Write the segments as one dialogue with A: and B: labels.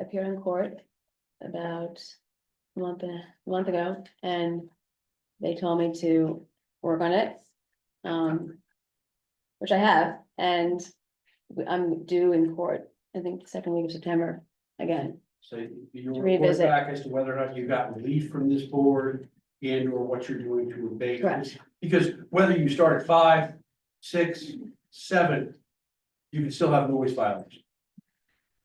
A: appeared in court about a month, and a month ago, and they told me to work on it. Um, which I have, and we- I'm due in court, I think, the second week of September again.
B: So you
A: To
B: report
A: revisit.
B: back as to whether or not you got relief from this board and or what you're doing to abate this.
A: Correct.
B: Because whether you start at five, six, seven, you can still have noise violation.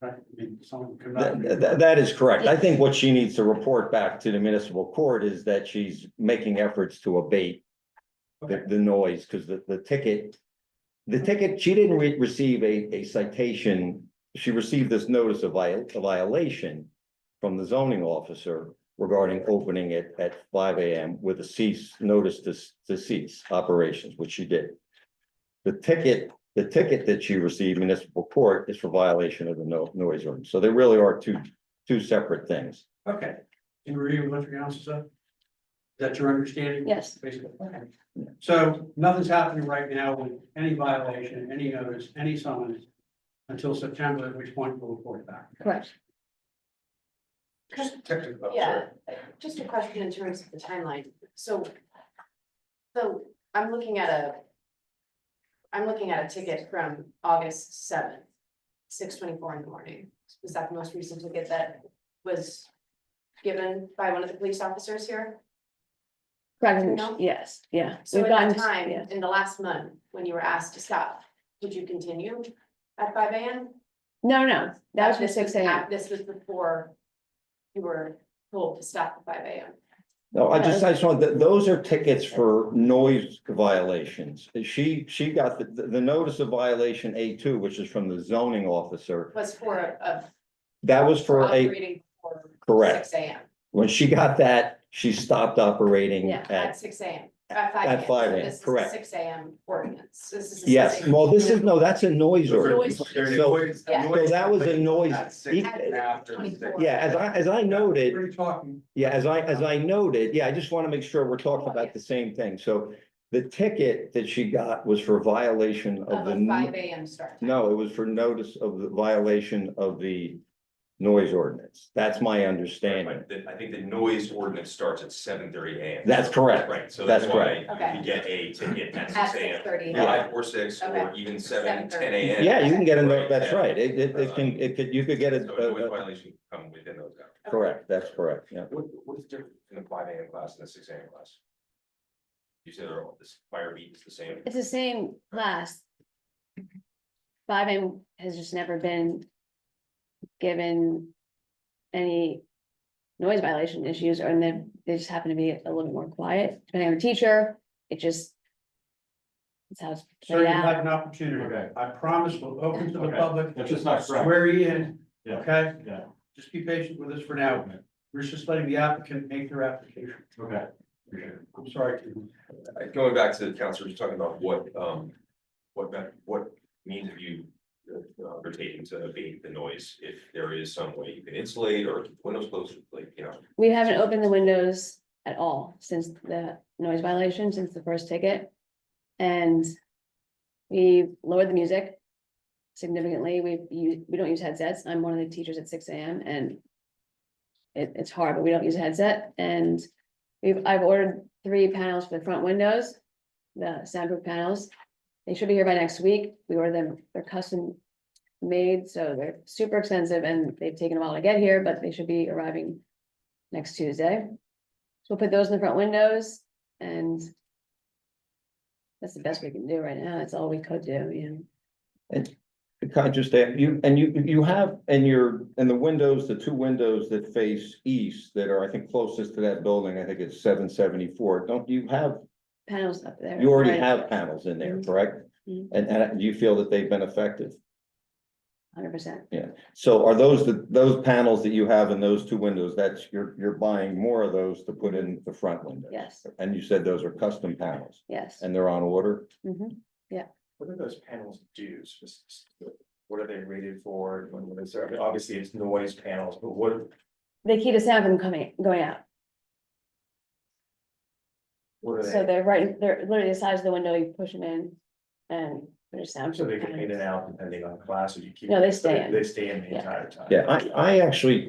B: Right, I mean, someone could not.
C: That, that- that is correct. I think what she needs to report back to the municipal court is that she's making efforts to abate the, the noise, because the, the ticket, the ticket, she didn't re- receive a, a citation. She received this notice of viol- a violation from the zoning officer regarding opening it at five AM with a cease, notice to, s- to cease operations, which she did. The ticket the ticket that you receive municipal court is for violation of the no noise ordinance. So they really are two, two separate things.
B: Okay, and review what your house is up? Is that your understanding?
A: Yes,
B: Basically, okay. So nothing's happening right now with any violation, any notice, any summons until September, at which point we'll report back.
A: correct.
D: Just-
B: Technical,
D: Yeah, just a question in terms of the timeline, so. So I'm looking at a. I'm looking at a ticket from August seventh, six twenty-four in the morning, was that the most recent ticket that was? Given by one of the police officers here,
A: Correct,
D: No?
A: yes, yeah.
D: so
A: We've
D: at that
A: gotten-
D: time,
A: yes.
D: in the last month, when you were asked to stop, did you continue? At five AM?
A: No, no, that was from
D: This
A: six AM.
D: at- This was before. You were told to stop at five AM,
C: No, I just, I just want, th- those are tickets for noise violations. She, she got the, the notice of violation A two, which is from the zoning officer.
D: was for a- a
C: That was for a,
D: Operating for
C: correct.
D: six AM,
C: When she got that, she stopped operating
A: Yeah,
C: at,
D: at six AM, at five.
C: At 5 a.m.,
D: So this is a
C: correct.
D: Six AM ordinance, this is. a
C: yes,
D: 6
C: well, this is, no, that's a noise ordinance. So,
D: Yeah.
C: so that was a noise. Yeah, as I, as I noted,
B: We're talking,
C: Yeah, as I, as I noted, yeah, I just want to make sure we're talking about the same thing. So the ticket that she got was for violation of
D: Of
C: the.
D: a
C: n-
D: five AM start. time.
C: No, it was for notice of the violation of the noise ordinance. That's my understanding.
E: Right, but the- I think the noise ordinance starts at seven thirty AM.
C: That's correct.
E: Right, so
C: That's
E: that's why
D: correct.
E: if you get a ticket at
D: At
E: six
D: six
E: AM,
D: thirty.
C: Yeah.
E: five or six or
D: Okay.
E: even seven,
D: 7:30.
E: ten AM.
C: Yeah, you can get a, no-
E: Right,
C: that's
E: yeah.
C: right. It, it, it can, it could, you could get
E: So
C: a,
E: a noise
C: a- a-
E: violation can come within those hours.
C: uh, correct, that's correct, yeah.
E: What, what's different in the five AM class and the six AM class? You said they're all, this fire beat is the same.
A: It's the same class. Five AM has just never been given any noise violation issues, or then they just happen to be a little bit more quiet, depending on the teacher, it just. It's how it's
B: so you
A: played
B: have
A: out,
B: an opportunity. I promise we'll open to the
F: Okay.
B: public.
F: That's just not correct.
B: Swear you in,
F: Yeah.
B: okay?
F: Yeah,
B: Just be patient with us for now. We're just letting the applicant make their application.
F: okay.
B: I'm sorry. Kim.
E: Uh, Going back to the counselor, just talking about what, um, what, me- what means have you uh, are taking to abate the noise? If there is some way you can insulate or keep windows closed, like, you know,
A: we haven't opened the windows at all since the noise violation, since the first ticket. And we lowered the music significantly, we, you, we don't use headsets, I'm one of the teachers at six AM and. It, it's hard, but we don't use a headset and we've, I've ordered three panels for the front windows, the soundproof panels. They should be here by next week, we ordered them, they're custom made, so they're super expensive and they've taken a while to get here, but they should be arriving next Tuesday. So we'll put those in the front windows and that's the best we can do right now. That's all we could do, you know.
C: Can I just add, you, and you, you have, and your, and the windows, the two windows that face east that are, I think, closest to that building, I think it's seven seventy-four. Don't you have
A: Panels up there.
C: You already
A: right.
C: have panels in there,
A: Mhm.
C: correct?
A: Mhm.
C: And, and you feel that they've been effective.
A: Hundred percent.
C: So are those, the those panels that you have in those two windows, that's, you're, you're buying more of those to put in the front window?
A: Yes,
C: And you said those are custom panels
A: yes.
C: and they're on order?
A: Mhm.
G: What do those panels do? specifically? What are they rated for? What is there? I mean, Obviously, it's noise panels, but what,
A: They keep the sound from coming, going out.
G: what are
A: So
G: they?
A: they're right, they're literally the size of the window. You push them in and There's sound.
G: So they get in and out depending on class, or you keep.
A: No, they stay in.
G: They stay in the
A: Yeah.
G: entire time.
C: Yeah, I, I actually